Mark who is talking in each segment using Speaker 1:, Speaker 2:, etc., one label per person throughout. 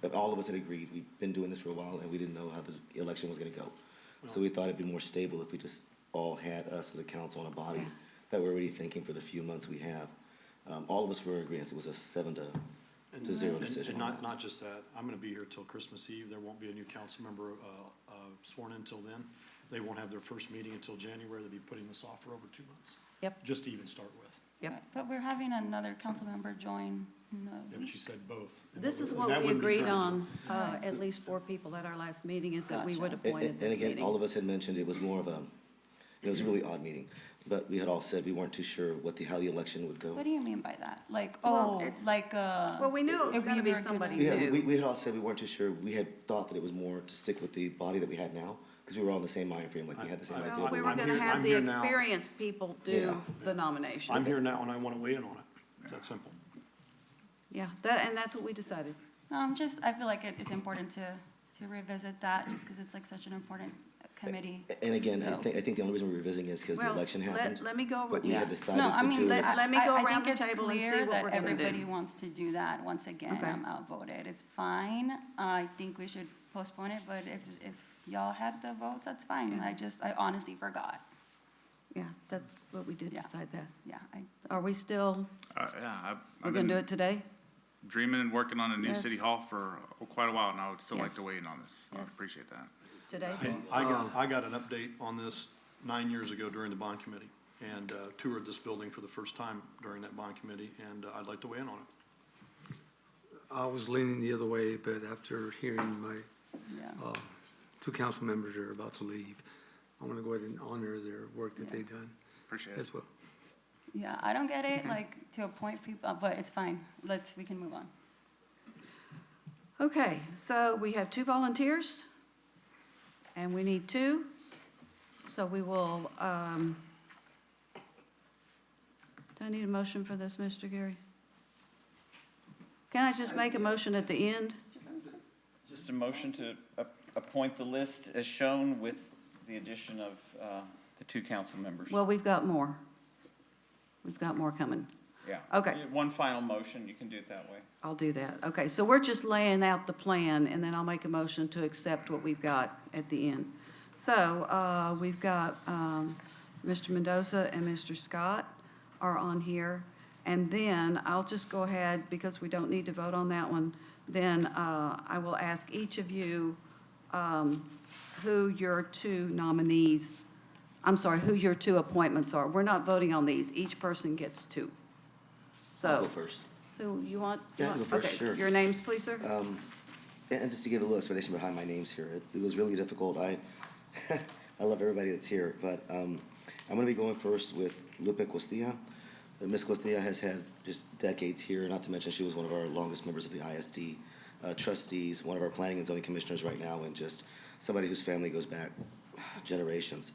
Speaker 1: but all of us had agreed, we've been doing this for a while, and we didn't know how the election was gonna go. So we thought it'd be more stable if we just all had us as a council and a body that we're already thinking for the few months we have. Um, all of us were in agreement, it was a seven to,
Speaker 2: And-
Speaker 1: to zero
Speaker 2: and-
Speaker 1: decision
Speaker 2: And
Speaker 1: on
Speaker 2: not,
Speaker 1: that.
Speaker 2: not just that, I'm gonna be here till Christmas Eve, there won't be a new council member, uh, uh, sworn in till then. They won't have their first meeting until January, they'll be putting this off for over two months.
Speaker 3: Yep.
Speaker 2: Just to even start with,
Speaker 3: Yep.
Speaker 4: But we're having another council member join, no,
Speaker 2: and she said both. and
Speaker 5: This
Speaker 2: that
Speaker 5: is
Speaker 2: would-
Speaker 5: what
Speaker 2: that
Speaker 5: we
Speaker 2: wouldn't be
Speaker 5: agreed
Speaker 2: fair.
Speaker 5: on, uh, at least four people at our last meeting, is that we would
Speaker 4: Gotcha.
Speaker 1: And,
Speaker 5: appoint at
Speaker 1: and- and
Speaker 5: this
Speaker 1: again, all
Speaker 5: meeting.
Speaker 1: of us had mentioned it was more of a, it was a really odd meeting, but we had all said we weren't too sure what the, how the election would go.
Speaker 4: what do you mean by that? Like,
Speaker 5: Well,
Speaker 4: oh,
Speaker 5: it's-
Speaker 4: like, uh.
Speaker 5: Well, we knew it was
Speaker 4: if we
Speaker 5: gonna be
Speaker 4: were gonna-
Speaker 5: somebody
Speaker 1: We
Speaker 5: new.
Speaker 1: had, we, we had all said we weren't too sure, we had thought that it was more to stick with the body that we had now, because we were all in the same mind frame, like we had the same
Speaker 2: I- I-
Speaker 1: idea.
Speaker 5: Well, we were
Speaker 2: I'm
Speaker 5: gonna
Speaker 2: here-
Speaker 5: have
Speaker 2: I'm
Speaker 5: the
Speaker 2: here now.
Speaker 5: experienced people
Speaker 1: Yeah.
Speaker 5: do the nomination.
Speaker 2: I'm here now and I wanna weigh in on it, it's that simple.
Speaker 5: Yeah, that, and that's what we decided.
Speaker 4: No, I'm just, I feel like it- it's important to, to revisit that, just because it's like such an important committee.
Speaker 1: And again, I
Speaker 4: So-
Speaker 1: think, I think the only reason we're revisiting is because the
Speaker 5: Well,
Speaker 1: election
Speaker 5: let-
Speaker 1: happened.
Speaker 5: let me go over-
Speaker 1: But we had
Speaker 5: Yeah.
Speaker 1: decided to do.
Speaker 4: No, I mean, I,
Speaker 5: Let me go
Speaker 4: I- I
Speaker 5: around
Speaker 4: think
Speaker 5: the
Speaker 4: it's
Speaker 5: table and see
Speaker 4: clear
Speaker 5: what
Speaker 4: that
Speaker 5: we're gonna do.
Speaker 4: everybody wants to do that. Once again,
Speaker 5: Okay.
Speaker 4: I'm outvoted. It's fine. I think we should postpone it, but if, if y'all had the votes, that's fine.
Speaker 5: Yeah.
Speaker 4: I just, I honestly forgot.
Speaker 5: Yeah, that's what we did
Speaker 4: Yeah.
Speaker 5: decide that.
Speaker 4: Yeah, I,
Speaker 5: Are we still,
Speaker 6: Uh, yeah, I've,
Speaker 5: we're
Speaker 6: I've
Speaker 5: gonna do
Speaker 6: been
Speaker 5: it today?
Speaker 6: dreaming and working on a new city
Speaker 5: Yes.
Speaker 6: hall for quite a while, and I would still like to
Speaker 5: Yes.
Speaker 6: weigh in on this. I
Speaker 5: Yes.
Speaker 6: appreciate that.
Speaker 5: Today?
Speaker 2: And I got, I got an update on this nine years ago during the bond committee, and, uh, toured this building for the first time during that bond committee, and uh, I'd like to weigh in on it.
Speaker 7: I was leaning the other way, but after hearing my
Speaker 4: yeah.
Speaker 7: uh, two council members are about to leave, I'm going to go ahead and honor their work that they've done
Speaker 6: Appreciate it.
Speaker 7: as well.
Speaker 4: Yeah, I don't get it, like, to appoint people, uh, but it's fine. Let's, we can move on.
Speaker 5: Okay, so we have two volunteers, and we need two. So we will, um, do I need a motion for this, Mr. Gary? Can I just make a motion at the end?
Speaker 8: Just a motion to ap- appoint the list as shown with the addition of uh, the two council members.
Speaker 5: Well, we've got more. We've got more coming.
Speaker 8: Yeah.
Speaker 5: okay.
Speaker 8: One final motion, you can do it that way.
Speaker 5: I'll do that. Okay, so we're just laying out the plan, and then I'll make a motion to accept what we've got at the end. So, uh, we've got, um, Mr. Mendoza and Mr. Scott are on here. And then I'll just go ahead, because we don't need to vote on that one, then, uh, I will ask each of you, um, who your two nominees, I'm sorry, who your two appointments are. We're not voting on these. Each person gets two.
Speaker 1: I'll
Speaker 5: So.
Speaker 1: Go first.
Speaker 5: Who, you want?
Speaker 1: Yeah, I can go first,
Speaker 5: Okay,
Speaker 1: sure. Uh,
Speaker 5: Your names, please, sir?
Speaker 1: And and just to give a little explanation behind my names here, it, it was really difficult. I, I love everybody that's here, but um, I'm going to be going first with Lupe Costilla. Uh, Ms. Costilla has had just decades here, not to mention she was one of our longest members of the ISD uh, trustees, one of our planning and zoning commissioners right now, and just somebody whose family goes back generations.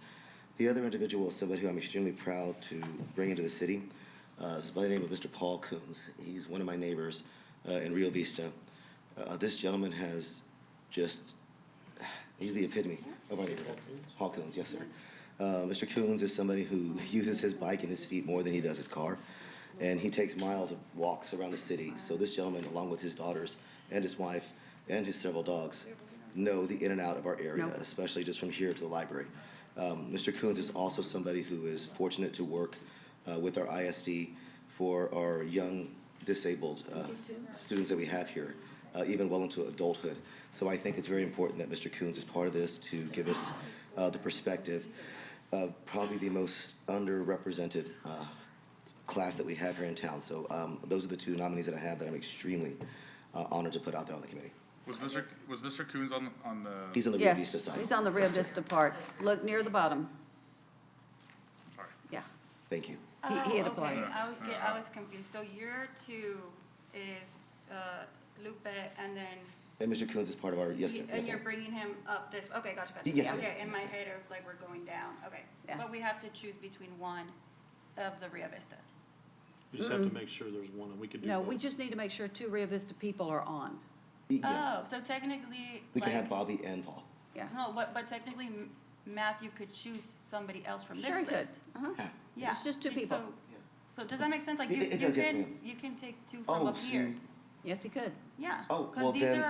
Speaker 1: The other individual is somebody who I'm extremely proud to bring into the city. Uh, is by the name of Mr. Paul Coons. He's one of my neighbors uh, in Rio Vista. Uh, this gentleman has just, he's the epitome of our neighborhood. Paul Coons, yes, sir. Uh, Mr. Coons is somebody who uses his bike and his feet more than he does his car. And he takes miles of walks around the city. So this gentleman, along with his daughters and his wife and his several dogs, know the in and out of our area,
Speaker 5: Nope.
Speaker 1: especially just from here to the library. Um, Mr. Coons is also somebody who is fortunate to work uh, with our ISD for our young disabled uh, students that we have here, uh, even well into adulthood. So I think it's very important that Mr. Coons is part of this to give us uh, the perspective of probably the most underrepresented uh, class that we have here in town. So um, those are the two nominees that I have that I'm extremely uh, honored to put out there on the committee.
Speaker 6: Was Mr. Was Mr. Coons on on the?
Speaker 1: He's on the Rio Vista
Speaker 5: Yes,
Speaker 1: side.
Speaker 5: he's on the Rio Vista part. Look near the bottom.
Speaker 6: Sorry.
Speaker 5: Yeah,
Speaker 1: Thank you.
Speaker 5: He- he had
Speaker 4: Oh,
Speaker 5: applied.
Speaker 4: okay. I was, get- I was confused. So year two is uh, Lupe, and then,
Speaker 1: And Mr. Coons is part of our, yes, sir.
Speaker 4: he-
Speaker 1: Yes,
Speaker 4: and you're
Speaker 1: ma'am.
Speaker 4: bringing him up this, okay, gotcha, gotcha.
Speaker 1: Yes, ma'am.
Speaker 4: Okay, in my
Speaker 1: Yes, ma'am.
Speaker 4: head, it was like, we're going down, okay.
Speaker 5: Yeah.
Speaker 4: But we have to choose between one of the Rio Vista.
Speaker 2: You just have to make sure there's one, and we could do
Speaker 5: Mm. no,
Speaker 2: both.
Speaker 5: we just need to make sure two Rio Vista people are on.
Speaker 1: Yes.
Speaker 4: Oh, so technically,
Speaker 1: We can have
Speaker 4: like,
Speaker 1: Bobby and Paul.
Speaker 5: Yeah.
Speaker 4: no, but, but technically M- Matthew could choose somebody else from
Speaker 5: Sure,
Speaker 4: this
Speaker 5: good.
Speaker 4: list.
Speaker 5: Uh-huh.
Speaker 1: Yeah.
Speaker 4: Yeah.
Speaker 5: It's just two
Speaker 4: so-
Speaker 5: people.
Speaker 4: So does that make sense? Like,
Speaker 1: It-
Speaker 4: you,
Speaker 1: it
Speaker 4: you
Speaker 1: does, yes,
Speaker 4: can,
Speaker 1: ma'am.
Speaker 4: you can take two from
Speaker 1: Oh,
Speaker 4: up here.
Speaker 1: see.
Speaker 5: Yes, he could.
Speaker 4: Yeah.
Speaker 1: Oh, well,
Speaker 4: Because these
Speaker 1: then-
Speaker 4: are